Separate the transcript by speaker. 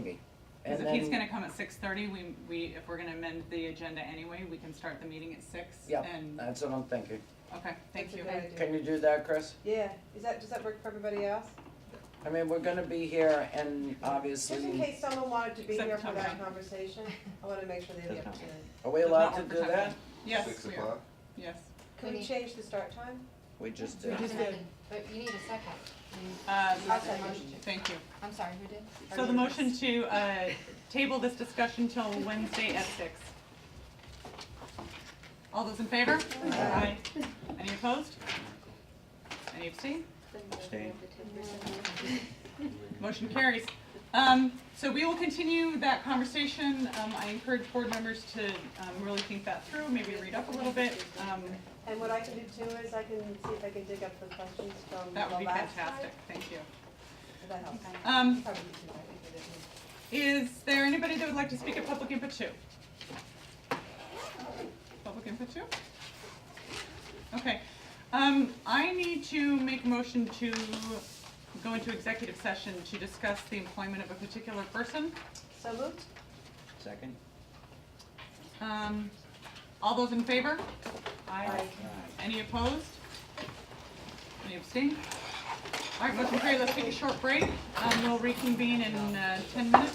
Speaker 1: Because
Speaker 2: And
Speaker 1: if he's
Speaker 2: then-
Speaker 1: gonna come at six thirty, we, we, if we're gonna amend the agenda anyway, we can start the meeting at six
Speaker 2: Yeah, Uh,
Speaker 1: and,
Speaker 2: that's what I'm thinking.
Speaker 1: okay, thank
Speaker 3: That's a
Speaker 1: you.
Speaker 3: good idea.
Speaker 2: Can you do that, Chris?
Speaker 3: Yeah, is that, does that work for everybody else?
Speaker 2: I mean, we're gonna be here and
Speaker 3: Just in
Speaker 2: obviously,
Speaker 3: case someone wanted to be
Speaker 1: Except
Speaker 3: here for that
Speaker 1: Tom.
Speaker 3: conversation, I wanna make sure they have the
Speaker 4: Does not.
Speaker 3: opportunity.
Speaker 2: are we
Speaker 1: Does
Speaker 2: allowed
Speaker 1: not
Speaker 2: to
Speaker 1: work
Speaker 2: do
Speaker 1: for time.
Speaker 2: that?
Speaker 1: Yes,
Speaker 4: Six
Speaker 1: we are,
Speaker 4: o'clock?
Speaker 1: yes.
Speaker 3: Can we
Speaker 5: Could-
Speaker 3: change the start time?
Speaker 2: We just
Speaker 3: We
Speaker 2: did.
Speaker 3: just- did.
Speaker 5: But you need a second. You-
Speaker 1: Uh,
Speaker 5: you
Speaker 3: I'll
Speaker 5: said
Speaker 3: second.
Speaker 5: motion to-
Speaker 1: Thank you.
Speaker 5: I'm sorry, who did?
Speaker 1: So the
Speaker 5: Or-
Speaker 1: motion to, uh, table this discussion till Wednesday at six. All those in favor? Aye. Any opposed? Any abstain? Motion carries. Um, so we will continue that conversation. Um, I encourage board members to, um, really think that through, maybe read up a little bit. Um,
Speaker 3: And what I can do too is I can see if I can dig up the questions from the
Speaker 1: that
Speaker 3: last
Speaker 1: would be
Speaker 3: time.
Speaker 1: fantastic. Thank you.
Speaker 3: If That helps.
Speaker 1: Um,
Speaker 3: Probably too much, I think, but it-
Speaker 1: Is there anybody that would like to speak at public input two? Public input two? Okay, um, I need to make a motion to go into executive session to discuss the employment of a particular person.
Speaker 3: So moved?
Speaker 2: Second?
Speaker 1: Um, all those in favor? Aye. Any opposed? Any abstain? All right, motion carried, let's take a short break, um, we'll reconvene in, uh, ten minutes.